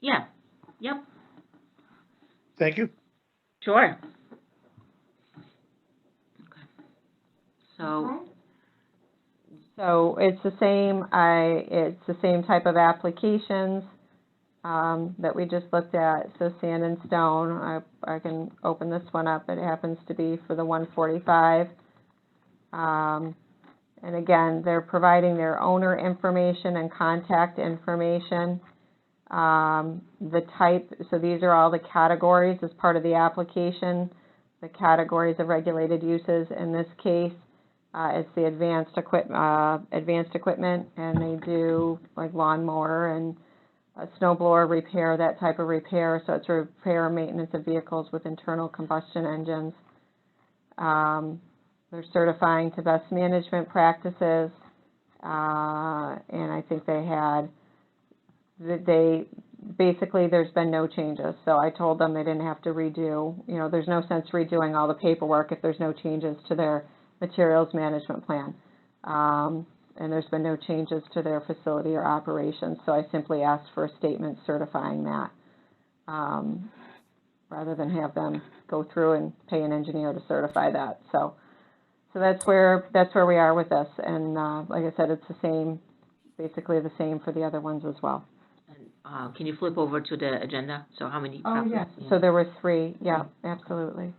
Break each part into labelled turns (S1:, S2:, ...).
S1: Yeah, yep,
S2: Thank you.
S1: sure. Okay. So,
S3: So it's the same, I, it's the same type of applications, um, that we just looked at, so sand and stone, I, I can open this one up, it happens to be for the one forty-five. Um, and again, they're providing their owner information and contact information. Um, the type, so these are all the categories as part of the application, the categories of regulated uses in this case. Uh, it's the advanced equip, uh, advanced equipment, and they do like lawnmower and uh, snow blower repair, that type of repair. So it's repair and maintenance of vehicles with internal combustion engines. Um, they're certifying to best management practices. Uh, and I think they had, that they, basically, there's been no changes. So I told them they didn't have to redo, you know, there's no sense redoing all the paperwork if there's no changes to their materials management plan. Um, and there's been no changes to their facility or operations, so I simply asked for a statement certifying that, um, rather than have them go through and pay an engineer to certify that, so. So that's where, that's where we are with this, and, uh, like I said, it's the same, basically the same for the other ones as well.
S1: and, uh, can you flip over to the agenda? So how many copies?
S3: Oh, So there were three, yeah, absolutely.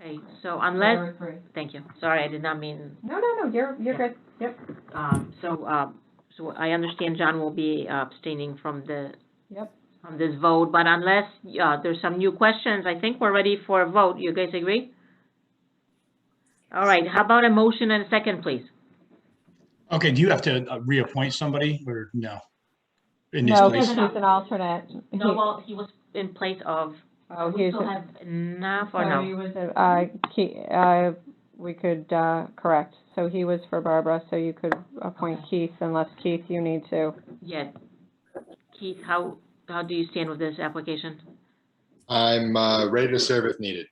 S1: Okay, so unless, thank you, sorry, I did not mean,
S3: No, no, no, you're, you're good, yep,
S1: um, so, um, so I understand John will be abstaining from the,
S3: yep,
S1: from this vote, but unless, uh, there's some new questions, I think we're ready for a vote. You guys agree? All right, how about a motion and a second, please?
S4: Okay, do you have to uh, reappoint somebody or no? In this
S3: no, because
S4: place?
S3: he's an alternate.
S1: No, well, he was in place of,
S3: Oh,
S1: we
S3: he's,
S1: still have enough or
S3: So
S1: Oh, no?
S3: he was, a- uh, Ke, uh, we could, uh, correct, so he was for Barbara, so you could appoint Keith unless Keith, you need to.
S1: Yeah. Keith, how, how do you stand with this application?
S5: I'm uh, ready to serve if needed.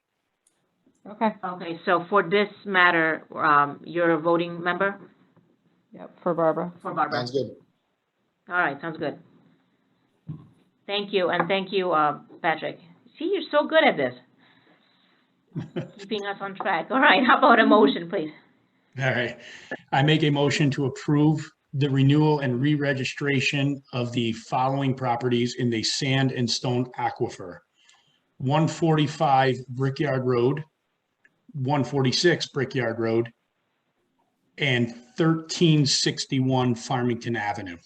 S3: Okay,
S1: Okay, so for this matter, um, you're a voting member
S3: yep, for Barbara.
S1: for Barbara?
S5: Sounds good.
S1: All right, sounds good. Thank you, and thank you, uh, Patrick. See, you're so good at this. Keeping us on track. All right, how about a motion, please?
S4: All right. I make a motion to approve the renewal and re-registration of the following properties in the sand and stone aquifer. 145 Brickyard Road, 146 Brickyard Road, and 1361 Farmington Avenue.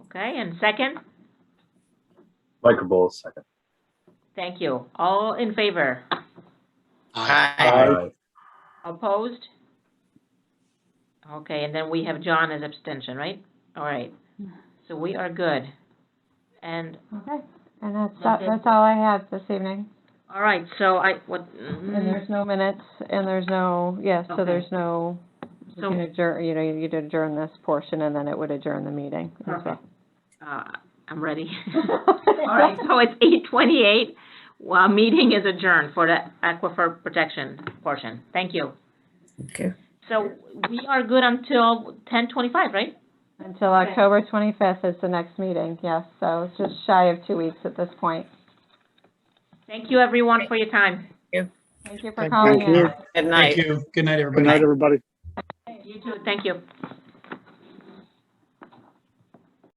S1: Okay, and second?
S6: Michael Bowles, second.
S1: Thank you. All in favor?
S6: Aye.
S1: Opposed? Okay, and then we have John as abstention, right? All right, so we are good. And,
S3: Okay, and that's,
S1: Okay.
S3: that's all I had this evening,
S1: all right, so I, what,
S3: and there's no minutes, and there's no, yes,
S1: Mm-hmm. Okay.
S3: so there's no, you
S1: So-
S3: can adjourn, you know, you'd adjourn this portion, and then it would adjourn the meeting as well.
S1: mm, uh, I'm ready. All right, so it's eight twenty-eight, well, meeting is adjourned for the aquifer protection portion. Thank you.
S7: Okay.
S1: So we are good until ten twenty-five, right?
S3: Until October twenty-fifth is the next meeting, yes, so it's just shy of two weeks at this point.
S1: Thank you, everyone, for your time.
S3: Thank you for
S2: Thank
S3: calling
S2: thank
S3: in.
S2: you.
S7: Good night.
S4: Thank you. Good night,
S2: Good
S4: everybody.
S2: night, everybody.
S1: You too, thank you.